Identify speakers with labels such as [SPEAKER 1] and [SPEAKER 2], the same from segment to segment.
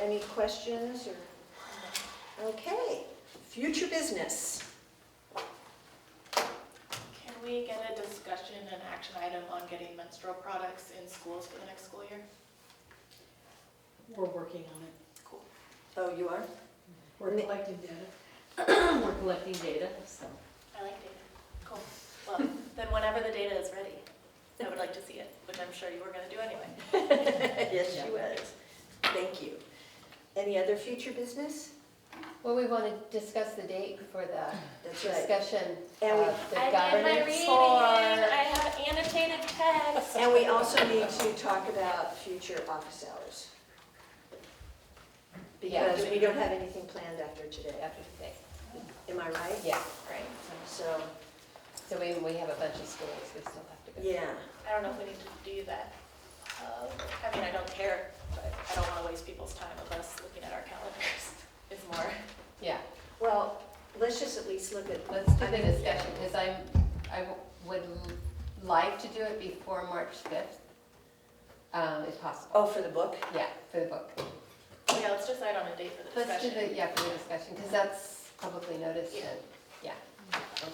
[SPEAKER 1] Any questions or? Okay, future business.
[SPEAKER 2] Can we get a discussion and action item on getting menstrual products in schools for the next school year?
[SPEAKER 3] We're working on it.
[SPEAKER 1] Oh, you are?
[SPEAKER 3] We're
[SPEAKER 1] Ne-
[SPEAKER 3] collecting data. We're collecting data, so.
[SPEAKER 2] I like data. Cool. Well, then whenever the data is ready, I would like to see it, which I'm sure you were gonna do anyway.
[SPEAKER 1] Yes,
[SPEAKER 3] Yeah.
[SPEAKER 1] she was. Thank you. Any other future business?
[SPEAKER 4] Well, we want to discuss the date for the
[SPEAKER 1] That's right.
[SPEAKER 4] discussion
[SPEAKER 1] And we-
[SPEAKER 4] of the
[SPEAKER 2] I did my
[SPEAKER 4] governance
[SPEAKER 2] reading.
[SPEAKER 4] for.
[SPEAKER 2] I have annotated text.
[SPEAKER 1] And we also need to talk about future office hours.
[SPEAKER 4] Yeah.
[SPEAKER 1] Because we don't have anything planned after today.
[SPEAKER 4] After today.
[SPEAKER 1] Am I right?
[SPEAKER 4] Yeah, right.
[SPEAKER 1] So,
[SPEAKER 4] So we, we have a bunch of schools we still have to go.
[SPEAKER 1] yeah.
[SPEAKER 2] I don't know if we need to do that. Uh, I mean, I don't care, but I don't wanna waste people's time of us looking at our calendars. It's more.
[SPEAKER 4] Yeah,
[SPEAKER 1] Well, let's just at least look at.
[SPEAKER 4] let's do
[SPEAKER 1] I
[SPEAKER 4] the
[SPEAKER 1] mean,
[SPEAKER 4] discussion because I'm, I w- would l- like to do it before March 5th, um, if possible.
[SPEAKER 1] Oh, for the book?
[SPEAKER 4] Yeah, for the book.
[SPEAKER 2] Yeah, let's decide on a date for the
[SPEAKER 4] Let's do
[SPEAKER 2] discussion.
[SPEAKER 4] the, yeah, for the discussion because that's publicly noticed and, yeah.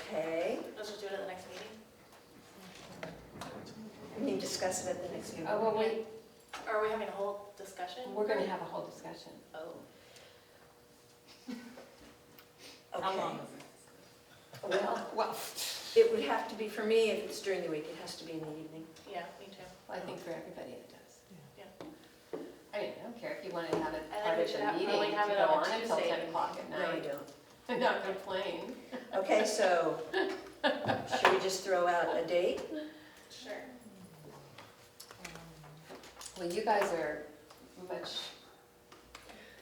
[SPEAKER 1] Okay.
[SPEAKER 2] Let's just do it at the next meeting.
[SPEAKER 1] We can discuss it at the next meeting.
[SPEAKER 4] Oh, well, we,
[SPEAKER 2] Are we having a whole discussion?
[SPEAKER 4] we're going to have a whole discussion.
[SPEAKER 2] Oh.
[SPEAKER 1] Okay. Well,
[SPEAKER 4] Well,
[SPEAKER 1] it would have to be, for me, if it's during the week, it has to be in the evening.
[SPEAKER 2] Yeah, me too.
[SPEAKER 4] I think for everybody it does.
[SPEAKER 2] Yeah.
[SPEAKER 4] I mean, I don't care if you want to have it
[SPEAKER 2] I think
[SPEAKER 4] part
[SPEAKER 2] we
[SPEAKER 4] of
[SPEAKER 2] should
[SPEAKER 4] the
[SPEAKER 2] have-
[SPEAKER 4] meeting,
[SPEAKER 2] probably
[SPEAKER 4] if you
[SPEAKER 2] have it
[SPEAKER 4] go
[SPEAKER 2] on a
[SPEAKER 4] on until
[SPEAKER 2] Tuesday.
[SPEAKER 4] ten o'clock at
[SPEAKER 1] No, you
[SPEAKER 4] night.
[SPEAKER 1] don't.
[SPEAKER 4] I'm not complaining.
[SPEAKER 1] Okay, so, should we just throw out a date?
[SPEAKER 2] Sure.
[SPEAKER 4] Well, you guys are much,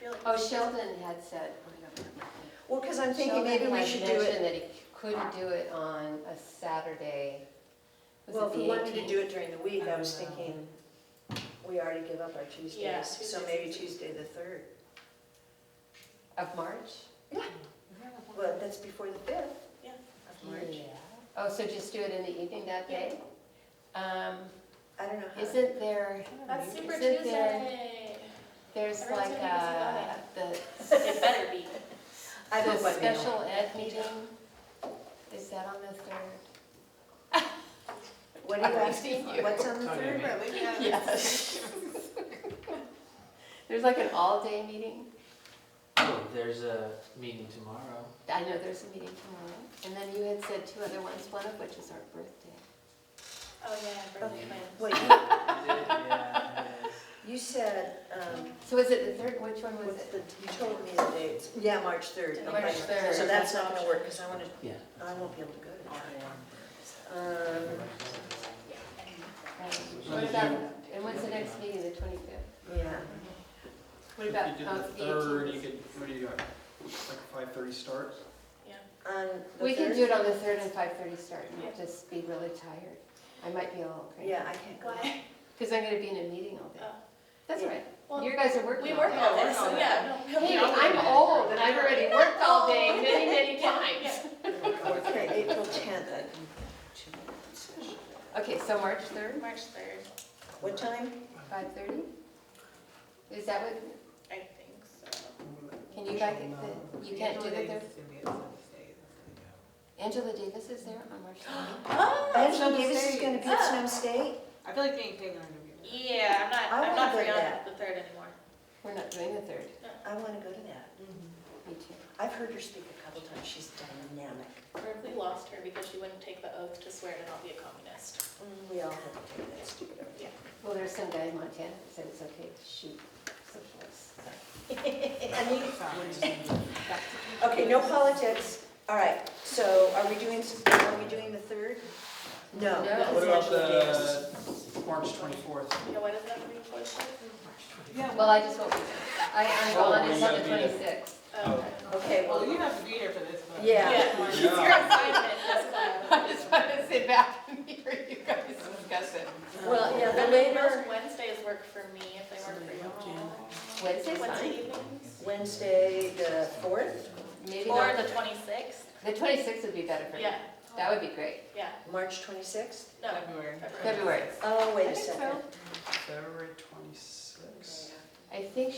[SPEAKER 2] Feel like
[SPEAKER 4] oh, Sheldon had said, oh, I don't remember.
[SPEAKER 1] Well, because I'm thinking maybe we should do
[SPEAKER 4] Sheldon
[SPEAKER 1] it,
[SPEAKER 4] had mentioned that he couldn't do do it on a Saturday. Was
[SPEAKER 1] well,
[SPEAKER 4] it
[SPEAKER 1] if we
[SPEAKER 4] the Oh.
[SPEAKER 1] wanted to
[SPEAKER 4] 18th?
[SPEAKER 1] do it during the week, I was thinking, we already give up our
[SPEAKER 2] Yeah,
[SPEAKER 1] Tuesdays, so
[SPEAKER 2] Tuesdays.
[SPEAKER 1] maybe Tuesday the third.
[SPEAKER 4] Of March?
[SPEAKER 1] Well, that's before the fifth of March.
[SPEAKER 4] Uh-huh. Yeah. Oh, so just do it in the evening that day? Um,
[SPEAKER 1] I don't know how.
[SPEAKER 4] isn't there,
[SPEAKER 2] That's Super
[SPEAKER 4] Is it there-
[SPEAKER 2] Tuesday.
[SPEAKER 4] there's
[SPEAKER 2] Everyone's
[SPEAKER 4] like
[SPEAKER 2] gonna be busy
[SPEAKER 4] uh the
[SPEAKER 2] It better be.
[SPEAKER 1] I
[SPEAKER 4] The
[SPEAKER 1] don't know.
[SPEAKER 4] special ed meeting, is that on the third?
[SPEAKER 1] What are you
[SPEAKER 4] I've
[SPEAKER 1] asking?
[SPEAKER 4] seen you.
[SPEAKER 1] What's on the
[SPEAKER 5] Tony,
[SPEAKER 1] third?
[SPEAKER 5] man.
[SPEAKER 4] Yes. There's like an all-day meeting.
[SPEAKER 5] Oh, there's a meeting tomorrow.
[SPEAKER 4] I know there's a meeting tomorrow. And then you had said two other ones, one of which is our birthday.
[SPEAKER 2] Oh, yeah, birthday plans.
[SPEAKER 1] Wait,
[SPEAKER 5] Yeah, it is.
[SPEAKER 1] you said, um,
[SPEAKER 4] So is it the third, which one was
[SPEAKER 1] what's
[SPEAKER 4] it?
[SPEAKER 1] the, you told me the dates. Yeah, March third.
[SPEAKER 2] March
[SPEAKER 4] third.
[SPEAKER 1] So that's not gonna work, because I wanna,
[SPEAKER 5] Yeah.
[SPEAKER 1] I won't be able to go to that one. Um,
[SPEAKER 4] Um, What about, and when's the next meeting, the twenty-fifth?
[SPEAKER 1] yeah.
[SPEAKER 4] What
[SPEAKER 6] If
[SPEAKER 4] about,
[SPEAKER 6] you did
[SPEAKER 4] oh,
[SPEAKER 6] the
[SPEAKER 4] it's the
[SPEAKER 6] third, you
[SPEAKER 4] eighteenth?
[SPEAKER 6] could, what do you got, like a 5:30 start?
[SPEAKER 1] On the
[SPEAKER 4] We can
[SPEAKER 1] third?
[SPEAKER 4] do it on the third and five-thirty start, and I'll
[SPEAKER 2] Yeah.
[SPEAKER 4] just be really tired. I might be a little crazy.
[SPEAKER 1] Yeah, I can't go.
[SPEAKER 2] Why?
[SPEAKER 4] Because I'm gonna be in a meeting all day.
[SPEAKER 2] Oh.
[SPEAKER 4] That's
[SPEAKER 1] Yeah.
[SPEAKER 4] all right.
[SPEAKER 2] Well,
[SPEAKER 4] You guys are working
[SPEAKER 2] We
[SPEAKER 4] all
[SPEAKER 2] work
[SPEAKER 4] day.
[SPEAKER 2] all
[SPEAKER 1] Yeah,
[SPEAKER 2] day,
[SPEAKER 6] Oh,
[SPEAKER 1] that's
[SPEAKER 2] so
[SPEAKER 1] all
[SPEAKER 2] yeah. no,
[SPEAKER 4] Hey,
[SPEAKER 2] we'll be
[SPEAKER 4] I'm
[SPEAKER 2] out.
[SPEAKER 4] old and I've already worked all day many, many
[SPEAKER 2] Yeah,
[SPEAKER 4] times.
[SPEAKER 2] yeah.
[SPEAKER 1] Okay, April tenth, I can do two special.
[SPEAKER 4] Okay, so March third,
[SPEAKER 2] March third,
[SPEAKER 1] What time?
[SPEAKER 4] five thirty? Is that what,
[SPEAKER 2] I think so.
[SPEAKER 4] can you guys,
[SPEAKER 6] uh,
[SPEAKER 4] the- you can't do the third? Angela Davis is there on March third?
[SPEAKER 1] Angela Davis is gonna be
[SPEAKER 4] Ah.
[SPEAKER 1] at Snow State?
[SPEAKER 7] I feel like being taken on a
[SPEAKER 2] Yeah, I'm not,
[SPEAKER 1] I
[SPEAKER 2] I'm
[SPEAKER 1] wanna
[SPEAKER 2] not
[SPEAKER 1] go
[SPEAKER 2] free
[SPEAKER 1] to
[SPEAKER 2] on
[SPEAKER 1] that.
[SPEAKER 2] the third anymore.
[SPEAKER 4] We're not doing the third,
[SPEAKER 1] I wanna go to that.
[SPEAKER 4] me too.
[SPEAKER 1] I've heard her speak a couple times, she's dynamic.
[SPEAKER 2] Berkeley lost her because she wouldn't take the oath to swear to not be a communist.
[SPEAKER 4] Mm.
[SPEAKER 1] We all have to take that stupid oath.
[SPEAKER 4] Well, there's some guy in Montana that said it's okay to shoot socialists.
[SPEAKER 1] Okay, no politics. All right, so are we doing, are we doing the third? No.
[SPEAKER 4] No.
[SPEAKER 1] that was
[SPEAKER 6] What about
[SPEAKER 1] Angela Davis.
[SPEAKER 6] the March 24th?
[SPEAKER 2] Yeah, why does that have to be enforced?
[SPEAKER 7] Yeah,
[SPEAKER 4] Well, I just won't be there. I, I'm
[SPEAKER 6] Oh,
[SPEAKER 4] gone
[SPEAKER 6] you
[SPEAKER 4] until the
[SPEAKER 6] gotta be there.
[SPEAKER 4] twenty-sixth.
[SPEAKER 2] Oh.
[SPEAKER 1] Okay,
[SPEAKER 7] well,
[SPEAKER 1] well,
[SPEAKER 7] you have to be there for this one.
[SPEAKER 1] Yeah.
[SPEAKER 2] Yeah, it's your assignment, that's why.
[SPEAKER 4] I just want to sit back and hear you guys discuss it.
[SPEAKER 1] well, yeah, the
[SPEAKER 2] And
[SPEAKER 1] later
[SPEAKER 2] most Wednesdays work for me if they work for you.
[SPEAKER 4] Wednesday's
[SPEAKER 2] Wednesday
[SPEAKER 4] fine.
[SPEAKER 2] evenings?
[SPEAKER 1] Wednesday, the fourth,
[SPEAKER 4] Maybe
[SPEAKER 2] Or
[SPEAKER 4] not,
[SPEAKER 2] the twenty-sixth?
[SPEAKER 4] the twenty-sixth would be better for me.
[SPEAKER 2] Yeah,
[SPEAKER 4] That would be great.
[SPEAKER 2] yeah,
[SPEAKER 1] March twenty-sixth.
[SPEAKER 2] no.
[SPEAKER 7] February.
[SPEAKER 4] February.
[SPEAKER 1] Oh, wait
[SPEAKER 7] I
[SPEAKER 1] a
[SPEAKER 7] think so.
[SPEAKER 1] second.
[SPEAKER 6] February 26th?
[SPEAKER 4] I think